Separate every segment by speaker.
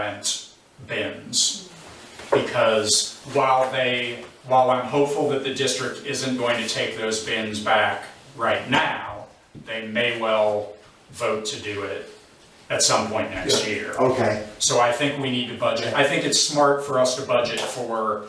Speaker 1: rent bins. Because while they, while I'm hopeful that the district isn't going to take those bins back right now, they may well vote to do it at some point next year.
Speaker 2: Okay,
Speaker 1: So I think we need to budget, I think it's smart for us to budget for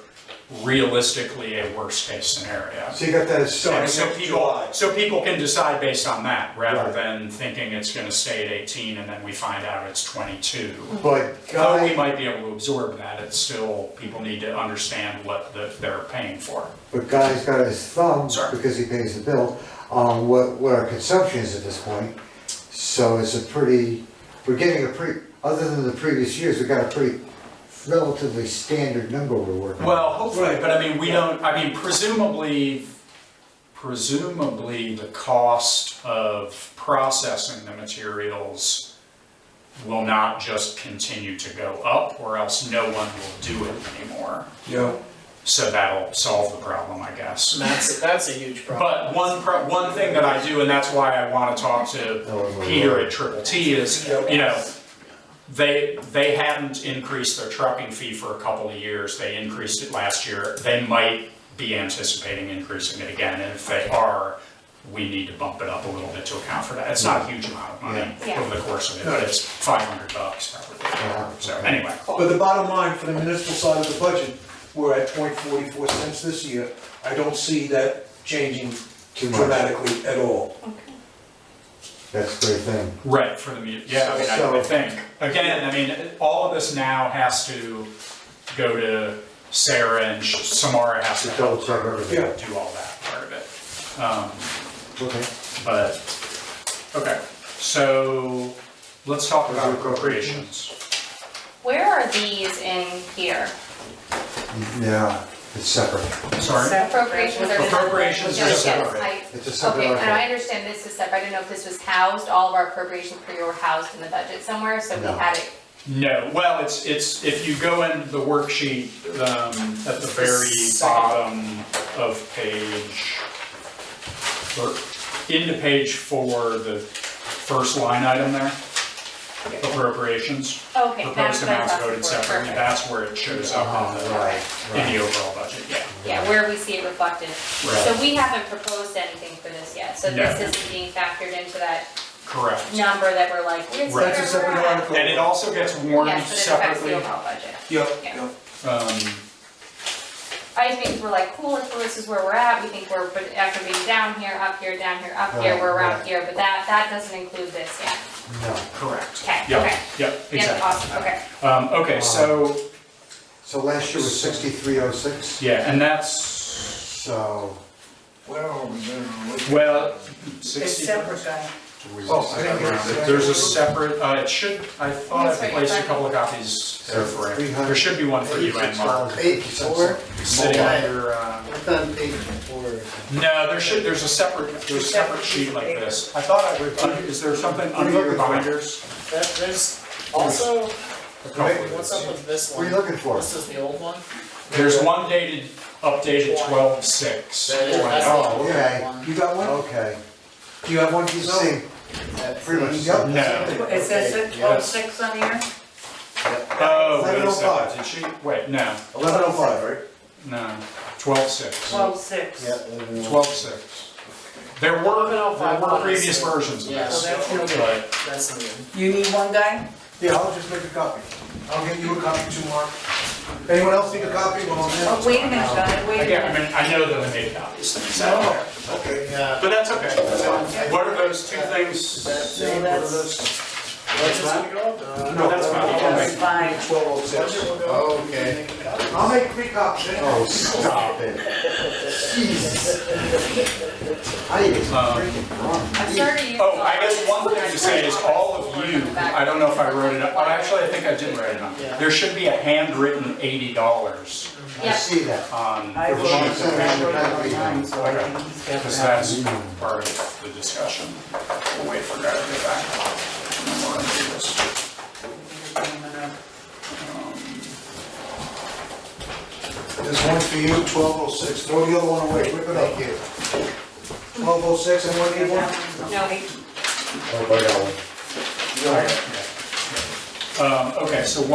Speaker 1: realistically a worst-case scenario.
Speaker 2: so you got that as
Speaker 1: So
Speaker 2: starting
Speaker 1: so
Speaker 2: next
Speaker 1: people,
Speaker 2: July.
Speaker 1: so people can decide based on that, rather
Speaker 2: Right.
Speaker 1: than thinking it's gonna stay at eighteen and then we find out it's twenty-two.
Speaker 2: But
Speaker 1: Though we
Speaker 2: Guy,
Speaker 1: might be able to absorb that, it's still, people need to understand what the- they're paying for.
Speaker 2: but Guy's got his thumb,
Speaker 1: Sorry.
Speaker 2: because he pays the bill, on what, what our consumption is at this point. So it's a pretty, we're getting a pretty, other than the previous years, we got a pretty relatively standard number we're working. with.
Speaker 1: Well, hopefully, but I mean, we don't, I mean, presumably, presumably the cost of processing the materials will not just continue to go up, or else no one will do it anymore.
Speaker 3: Yeah.
Speaker 1: So that'll solve the problem, I guess.
Speaker 4: That's, that's a huge problem.
Speaker 1: But one, pro- one thing that I do, and that's why I wanna talk
Speaker 2: Oh,
Speaker 1: to
Speaker 2: my
Speaker 1: Peter
Speaker 2: Lord.
Speaker 1: at Triple T is, you know, they, they hadn't increased their trucking fee for a couple of years, they increased it last year, they might be anticipating increasing it again, and if they are, we need to bump it up a little bit to account for that, it's not a huge amount of money
Speaker 5: Yeah.
Speaker 1: over the course of it, but it's five hundred bucks
Speaker 2: Yeah.
Speaker 1: probably, so anyway.
Speaker 3: But the bottom line for the municipal side of the budget, we're at point forty-four cents this year. I don't see that changing
Speaker 2: Too much.
Speaker 3: dramatically at all.
Speaker 5: Okay.
Speaker 2: That's a great thing.
Speaker 1: Right, for the mu, yeah, I mean, I- I
Speaker 2: So-
Speaker 1: think, again, I mean, all of this now has to go to Sarah and Sh- Samara has to
Speaker 2: To
Speaker 1: help
Speaker 2: double check everything.
Speaker 3: Yeah.
Speaker 1: do all that part of it. Um,
Speaker 2: Okay.
Speaker 1: but, okay, so let's talk about appropriations.
Speaker 5: Where are these in here?
Speaker 2: Yeah, it's separate.
Speaker 1: Sorry,
Speaker 5: Appropriations are.
Speaker 1: Appropriations are
Speaker 5: Yes,
Speaker 1: separate.
Speaker 5: I-
Speaker 2: It's a separate
Speaker 5: Okay, and I
Speaker 2: article.
Speaker 5: understand this is separate, I didn't know if this was housed, all of our appropriations for you were housed in the budget somewhere, so we
Speaker 2: No.
Speaker 5: had it.
Speaker 1: no, well, it's, it's, if you go in the worksheet, um, at the very
Speaker 4: Second.
Speaker 1: bottom of page, or into page four, the first line item there, appropriations,
Speaker 5: Okay, that's
Speaker 1: proposed
Speaker 5: what I
Speaker 1: amounts
Speaker 5: thought
Speaker 1: voted
Speaker 5: before,
Speaker 1: separately,
Speaker 5: perfect.
Speaker 1: that's where it shows up in
Speaker 2: Uh-huh,
Speaker 1: the,
Speaker 2: right,
Speaker 1: in
Speaker 2: right.
Speaker 1: the overall budget, yeah.
Speaker 5: Yeah, where we see it reflected. So we haven't proposed anything for this yet, so
Speaker 1: No.
Speaker 5: this isn't being factored into that
Speaker 1: Correct.
Speaker 5: number that we're like, here's where
Speaker 1: Right.
Speaker 5: we're
Speaker 3: That's a separate
Speaker 5: at."
Speaker 3: article.
Speaker 1: And it also gets warned
Speaker 5: Yes, but it affects the
Speaker 1: separately.
Speaker 5: overall budget.
Speaker 3: Yep,
Speaker 5: Yeah.
Speaker 3: yep.
Speaker 1: Um,
Speaker 5: I just think we're like, cool, if this is where we're at, we think we're, but after being down here, up here, down here, up here,
Speaker 2: Right,
Speaker 5: we're around
Speaker 2: right.
Speaker 5: here, but that, that doesn't include this yet.
Speaker 2: No.
Speaker 1: Correct.
Speaker 5: Okay,
Speaker 1: Yeah,
Speaker 5: okay.
Speaker 1: yeah,
Speaker 5: Yeah,
Speaker 1: exactly.
Speaker 5: awesome, okay.
Speaker 1: Um, okay, so,
Speaker 2: So last year was sixty-three oh six,
Speaker 1: yeah, and that's,
Speaker 2: so.
Speaker 3: Where are we now?
Speaker 1: well, sixty.
Speaker 4: guy.
Speaker 3: Oh, I didn't get it.
Speaker 1: There's a separate, uh, it should, I thought I placed a couple of copies there for it. There should be one for you and Mark,
Speaker 6: Page four,
Speaker 1: sitting on your, uh,
Speaker 6: it's on page four.
Speaker 1: no, there should, there's a separate, there's a separate sheet like this. I thought I would, under- is there something under your binders?
Speaker 4: That, there's also,
Speaker 1: A couple of
Speaker 4: what's
Speaker 1: these.
Speaker 4: up with this
Speaker 2: What are
Speaker 4: one?
Speaker 2: you looking for?
Speaker 4: This is the old one?
Speaker 1: There's one dated, updated twelve six.
Speaker 4: That is- that's the
Speaker 2: oh,
Speaker 4: old
Speaker 2: okay.
Speaker 4: one.
Speaker 3: You got one?
Speaker 2: Okay.
Speaker 3: Do you have one of
Speaker 2: You
Speaker 3: these?
Speaker 2: see, uh, pretty much.
Speaker 6: Yep.
Speaker 1: No,
Speaker 7: It says twelve six on here?
Speaker 1: oh, wait a
Speaker 3: 1105.
Speaker 1: second, did she, wait, no,
Speaker 3: Eleven oh five, right?
Speaker 1: no, twelve six.
Speaker 7: Twelve six.
Speaker 6: Yep, and then-
Speaker 1: Twelve six. There were, there were previous versions of
Speaker 4: Yeah.
Speaker 1: this,
Speaker 7: Well, that's really
Speaker 1: but
Speaker 4: That's the new.
Speaker 7: You need one guy?
Speaker 3: Yeah, I'll just make a copy. I'll get you a copy too, Mark. Anyone else need a copy while
Speaker 7: Oh,
Speaker 3: I'm
Speaker 7: wait a minute, guy, wait a
Speaker 1: again, I
Speaker 7: minute.
Speaker 1: mean, I know that I made copies, so, but
Speaker 3: there? Okay.
Speaker 6: Yeah.
Speaker 1: that's okay, that's fine. What are those two things?
Speaker 7: So that's,
Speaker 3: No,
Speaker 1: that's fine.
Speaker 7: that's fine.
Speaker 3: Twelve oh six.
Speaker 6: Okay.
Speaker 3: I'll make three copies. eh?
Speaker 2: Oh, stop it. Jeez. I even freaking wrong.
Speaker 5: I'm sorry to use.
Speaker 1: Oh, I guess one thing to say is all of you, I don't know if I wrote it up, but actually I think I did write it up. There should be a handwritten eighty dollars
Speaker 2: I
Speaker 5: Yeah,
Speaker 2: see that.
Speaker 1: on
Speaker 7: I
Speaker 1: the
Speaker 7: wrote,
Speaker 1: sheet
Speaker 2: She's
Speaker 1: that
Speaker 7: I
Speaker 1: we
Speaker 7: wrote
Speaker 1: should have,
Speaker 7: it online, so I think he's got
Speaker 1: because
Speaker 7: that.
Speaker 1: that's part of the discussion. We'll wait for Greg to get back. And then we're gonna do this.
Speaker 3: There's one for you, twelve oh six, throw the other one away, rip it up here. Twelve oh six, and what do you want?
Speaker 5: no,
Speaker 2: Oh, my God.
Speaker 1: Um, okay, so